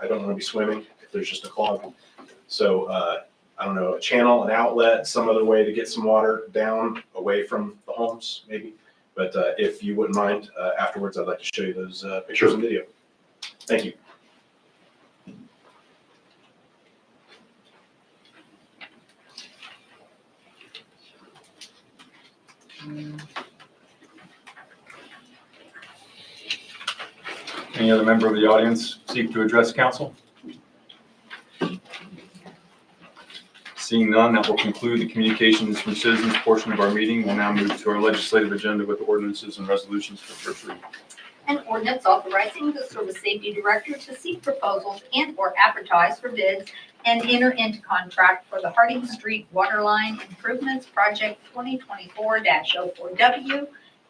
I don't want to be swimming if there's just a clog. So, uh, I don't know, a channel, an outlet, some other way to get some water down away from the homes, maybe. But, uh, if you wouldn't mind, uh, afterwards, I'd like to show you those, uh, pictures and video. Thank you. Any other member of the audience seek to address council? Seeing none, that will conclude the communications from citizens portion of our meeting. We'll now move to our legislative agenda with ordinances and resolutions for first reading. An ordinance authorizing the Service Safety Director to seek proposals and/or advertise for bids and enter into contract for the Harding Street Waterline Improvements Project 2024-04W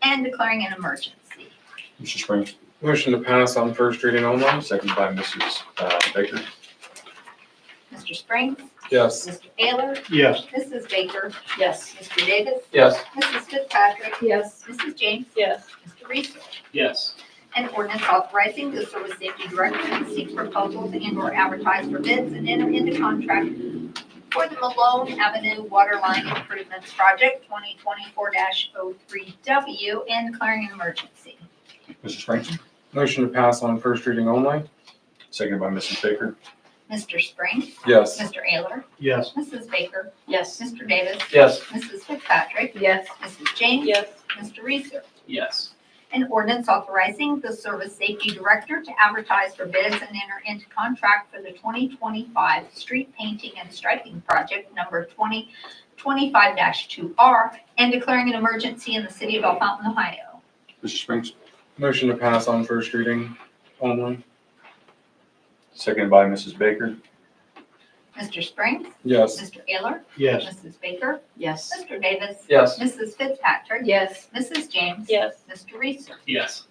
and declaring an emergency. Mr. Springs, Motion to pass on first reading only? seconded by Mrs. uh, Baker. Mr. Springs? Yes. Mr. Taylor? Yes. Mrs. Baker? Yes. Mr. Davis? Yes. Mrs. Fitzpatrick? Yes. Mrs. James? Yes. Mr. Reese? Yes. An ordinance authorizing the service safety director to seek proposals and or advertise for bids and enter into contract for the Malone Avenue Waterline Improvements Project twenty twenty-four 3 W and declaring an emergency. Mr. Springs, Motion to pass on first reading only? seconded by Mrs. Baker. Mr. Spring, Yes. Mr. Ayler, Yes. Mrs. Baker, Yes. Mr. Davis, Yes. Mrs. Fitzpatrick, Yes. Mrs. James, Yes. Mr. Reeser. Yes. An ordinance authorizing the service safety director to advertise for bids and enter into contract for the 2025 street painting and striping project number 2025-2R and declaring an emergency in the city of Bell Fountain, Ohio. Mr. Springs, Motion to pass on first reading only? seconded by Mrs. Baker. Mr. Springs, Yes. Mr. Ayler, Yes. Mrs. Baker, Yes. Mr. Davis, Yes. Mrs. Fitzpatrick, Yes. Mrs. James, Yes. Mr. Reeser. Yes.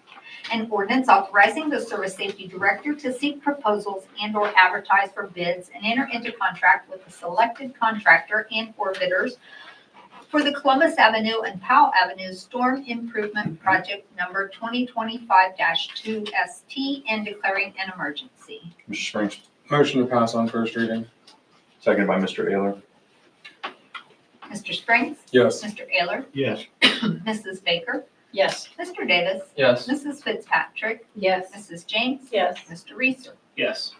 An ordinance authorizing the service safety director to seek proposals and/or advertise for bids and enter into contract with the selected contractor and/or bidders for the Columbus Avenue and Powell Avenue Storm Improvement Project Number 2025-2ST and declaring an emergency. Mr. Springs, Motion to pass on first reading? seconded by Mr. Ayler. Mr. Springs, Yes. Mr. Ayler, Yes. Mrs. Baker, Yes. Mr. Davis, Yes. Mrs. Fitzpatrick, Yes. Mrs. James, Yes. Mr. Reeser. Yes.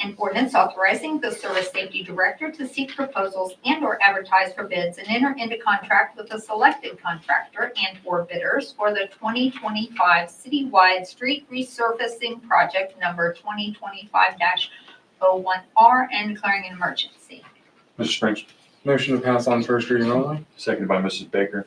An ordinance authorizing the service safety director to seek proposals and/or advertise for bids and enter into contract with the selected contractor and/or bidders for the 2025 citywide street resurfacing project number 2025-01R and declaring an emergency. Mr. Springs, Motion to pass on first reading only? seconded by Mrs. Baker.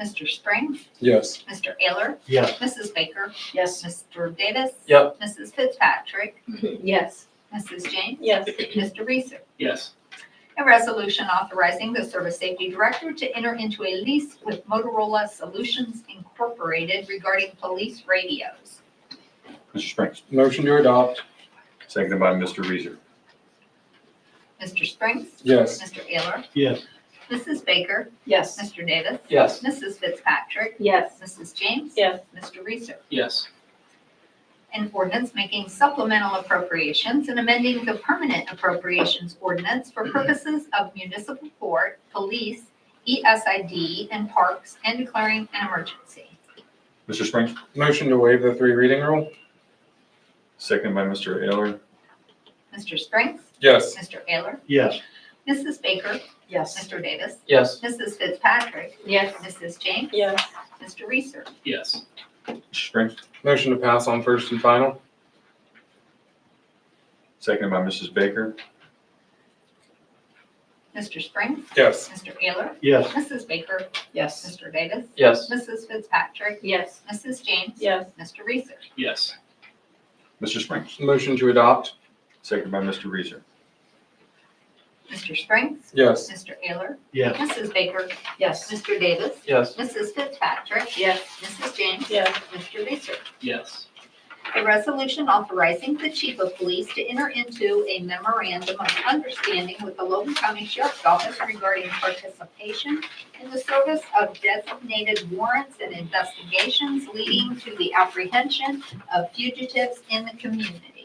Mr. Springs, Yes. Mr. Ayler, Yes. Mrs. Baker, Yes. Mr. Davis. Yep. Mrs. Fitzpatrick, Yes. Mrs. James, Yes. Mr. Reeser. Yes. A resolution authorizing the service safety director to enter into a lease with Motorola Solutions Incorporated regarding police radios. Mr. Springs, Motion to adopt? seconded by Mr. Reeser. Mr. Springs? Yes. Mr. Ayler? Yes. Mrs. Baker? Yes. Mr. Davis? Yes. Mrs. Fitzpatrick? Yes. Mrs. James? Yes. Mr. Reeser? Yes. An ordinance making supplemental appropriations and amending the permanent appropriations ordinance for purposes of municipal court, police, E ESID, and parks, and declaring an emergency. Mr. Springs, Motion to waive the three reading rule? seconded by Mr. Ayler. Mr. Springs? Yes. Mr. Ayler? Yes. Mrs. Baker, Yes. Mr. Davis, Yes. Mrs. Fitzpatrick, Yes. Mrs. James, Yes. Mr. Reeser. Yes. Mr. Springs, Motion to pass on first and final? seconded by Mrs. Baker. Mr. Springs, Yes. Mr. Ayler, Yes. Mrs. Baker, Yes. Mr. Davis, Yes. Mrs. Fitzpatrick, Yes. Mrs. James, Yes. Mr. Reeser. Yes. Mr. Springs, Motion to adopt? seconded by Mr. Reeser. Mr. Springs, Yes. Mr. Ayler, Yes. Mrs. Baker, Yes. Mr. Davis, Yes. Mrs. Fitzpatrick, Yes. Mrs. James, Yes. Mr. Reeser. Yes. A resolution authorizing the chief of police to enter into a memorandum of understanding with the Logan County Sheriff's Office regarding participation in the service of designated warrants and investigations leading to the apprehension of fugitives in the community.